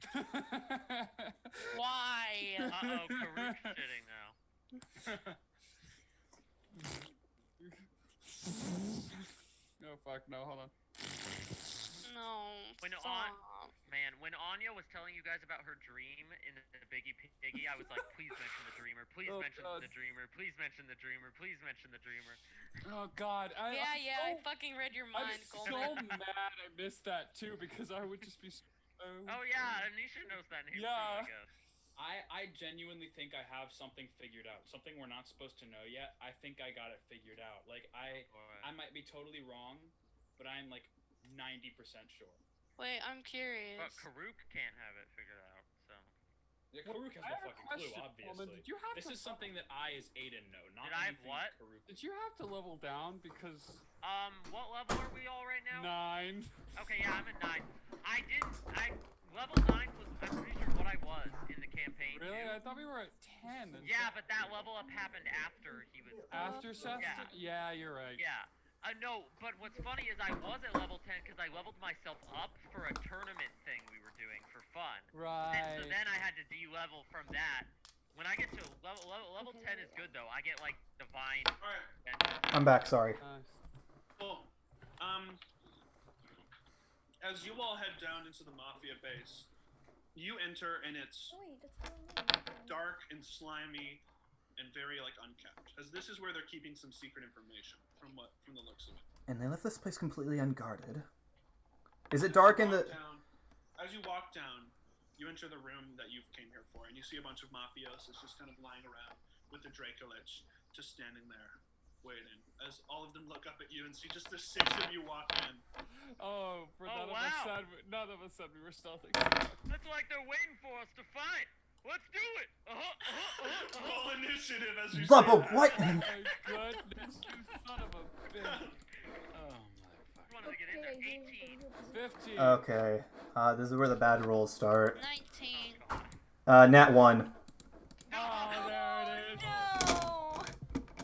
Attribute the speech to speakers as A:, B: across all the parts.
A: Oh,
B: Uh oh, Karuk's sitting now.
A: No, fuck, no, hold on.
C: No.
B: When
C: stop.
B: on- Man, when Anya was telling you guys about her dream in the Biggie Piggy, I was like, please mention the dreamer, please
A: Oh,
B: mention
A: God.
B: the dreamer, please mention the dreamer, please mention the dreamer.
A: Oh, God. I,
C: Yeah,
A: I'm
C: yeah, I
A: so-
C: fucking read your
A: I'm
C: mind,
A: so
C: Goldman.
A: mad I missed that too because I would just be so.
B: Oh yeah, Anisha knows that name. too,
A: Yeah.
B: I guess.
D: I, I genuinely think I have something figured out. Something we're not supposed to know yet. I think I got it figured out. Like I
B: Alright.
D: I might be totally wrong, but I'm like 90% sure.
C: Wait, I'm
B: But
C: curious.
B: Karuk can't have it figured out, so.
D: Yeah, Karuk
A: I
D: has
A: have a
D: no fucking clue,
A: question,
D: obviously.
A: Coleman. Did you have
D: this
A: to-
D: is something that I as Aiden know, not
B: Did I have
D: anything
B: what?
D: Karuk.
A: Did you have to level down because
B: Um, what level are we all right now?
A: nine?
B: Okay, yeah, I'm at nine. I didn't. I level nine was. I'm pretty sure what I was in the campaign.
A: Really?
B: too.
A: I thought we were at ten. and
B: Yeah, but that level up happened after he was.
A: after Seth.
B: Yeah.
A: did- yeah, you're right.
B: Yeah. Uh, no, but what's funny is I was at level 10 because I leveled myself up for a tournament thing we were doing for fun. And
A: Right.
B: so then I had to de-level from that. When I get to level level, level 10 is good though. I get like divine.
D: Alright,
B: and-
E: I'm back, sorry.
A: Nice.
D: cool.
F: Um, as you all head down into the mafia base, you enter and it's
G: Oh, wait, that's the one.
F: dark and slimy and very like unkept, as this is where they're keeping some secret information from what from the looks of it.
E: And they left this place completely unguarded. Is it dark in
F: Walk
E: the.
F: down- as you walk down, you enter the room that you've came here for, and you see a bunch of mafios that's just kind of lying around with the Dracolich just standing there waiting. As all of them look up at you and see just the six of you walk in.
A: Oh, for
B: Oh,
A: none of us
B: wow.
A: said we- none of us said we were stealthing.
B: It's like they're waiting for us to fight. Let's do it. Uh-huh, uh-huh, uh-huh, uh-huh.
F: Roll initiative as you say
E: Double
F: that.
E: what?
A: My goodness, you son of a bitch. Oh
B: I wanted to get in there. 18.
A: my. Fifteen.
E: Okay. Uh, this is where the bad rolls start.
C: 19.
B: Oh,
E: Uh, nat 1.
A: Oh, there it is.
C: No!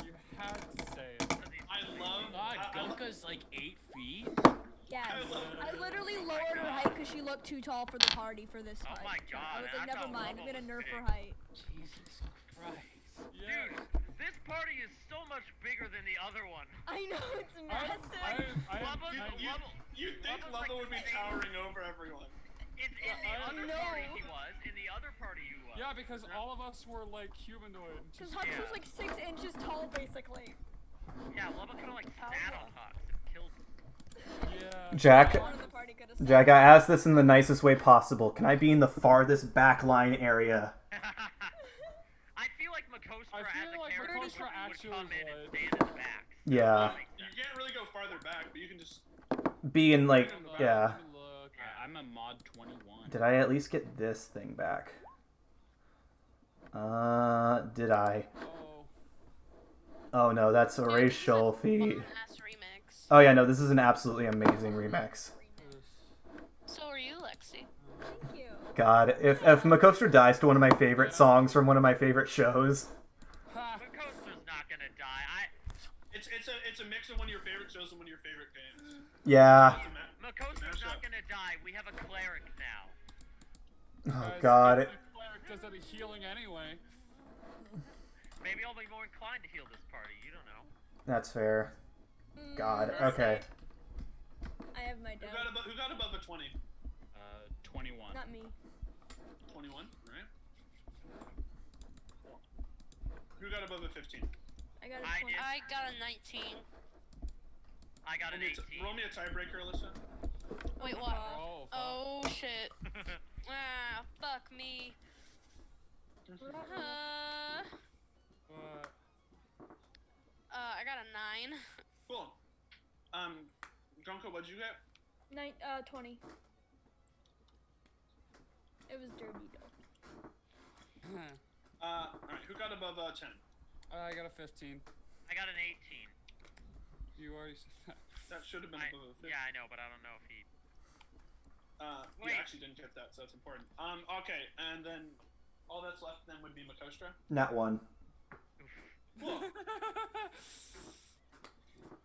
A: You had to say it.
F: I love I-
D: God,
F: I love-
D: Gunka's like eight feet.
G: Yes.
F: love
G: I literally lowered her height because she looked too tall for the party for this
B: Oh
G: time.
B: my
G: So I
B: God,
G: was
B: I
G: like, never
B: thought
G: mind. I'm
B: Lobo
G: gonna nerf
B: was
G: her
B: big.
G: height.
D: Jesus Christ.
A: Yeah.
B: Dude, this party is so much bigger than the other one.
G: I know it's
A: I,
G: massive.
A: I, I,
B: Lubba,
A: I,
F: You,
B: Level-
F: you think
B: level's
F: Lubba
B: like
F: would be
B: the same.
F: towering over everyone.
B: In, in the
A: I-
B: other
G: No.
B: party he was. In the other party you was.
A: yeah, because all of us were like humanoid. and
G: Because
A: Just,
G: Hux
B: yeah.
G: was like six inches tall, basically.
B: Yeah, Lubba kind of like sat on Hux and killed him.
A: yeah.
E: Jack.
G: One of the party could have said.
E: Jack, I asked this in the nicest way possible. Can I be in the farthest back line area?
B: I feel like Makostra
A: I
B: as a
A: feel like
B: character
A: Makostra
B: would
A: actually
B: come in and
A: would.
B: stand in the back. So
E: Yeah.
B: that makes
F: You
B: sense.
F: can't really go farther back, but you can just.
E: Be in, like,
A: Look,
E: yeah.
A: Look.
D: Uh, I'm a mod 21.
E: Did I at least get this thing back? Uh, did I?
A: Oh.
E: Oh no, that's a
C: Dude, this is a
E: racial feat.
C: bomb-ass remix.
E: Oh yeah, no, this is an absolutely amazing remix.
C: So are you, Lexi.
G: Thank you.
E: God, if if Makostra dies to one of my favorite songs from one of my favorite shows,
A: Ha.
E: Oh,
B: Makostra's not gonna die. I
F: It's it's a it's a mix of one of your favorite shows and one of your favorite games.
E: yeah.
F: It's a ma-
B: Makostra's
F: Mashup.
B: not gonna die. We have a cleric now.
E: Oh
A: Guys,
E: God, it,
A: the cleric does any healing anyway.
B: Maybe I'll be more inclined to heal this party. You don't know.
E: that's fair. God,
G: Mm,
E: okay.
G: I have my
F: Who got
G: doubt.
F: above Who got above a 20?
D: Uh, 21.
G: Not me.
F: 21, right? Who got above a 15?
G: I got
B: I
G: a 20.
B: did.
C: I got a 19.
B: I got
F: Roll
B: an
F: me a
B: 18.
F: t- roll me a tiebreaker, Alyssa.
C: Wait, what?
A: Oh, fuck.
C: Oh, shit. Ah, fuck me. Uh, uh,
A: But
C: I got a 9.
F: Cool. Um, Gonko, what'd you get?
G: Nine, uh, 20. It was dirty, though.
F: Uh, all right. Who got above uh, 10?
A: I got a 15.
B: I got an 18.
A: You already said that.
F: That should have been
B: I,
F: above a 15.
B: yeah, I know, but I don't know if he.
F: Uh, you
B: Wait.
F: actually didn't get that, so that's important. Um, okay, and then all that's left then would be Makostra.
E: Not one.
F: Cool.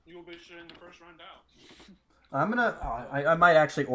F: you will be shooting the first round out.
E: I'm gonna. oh, I I might actually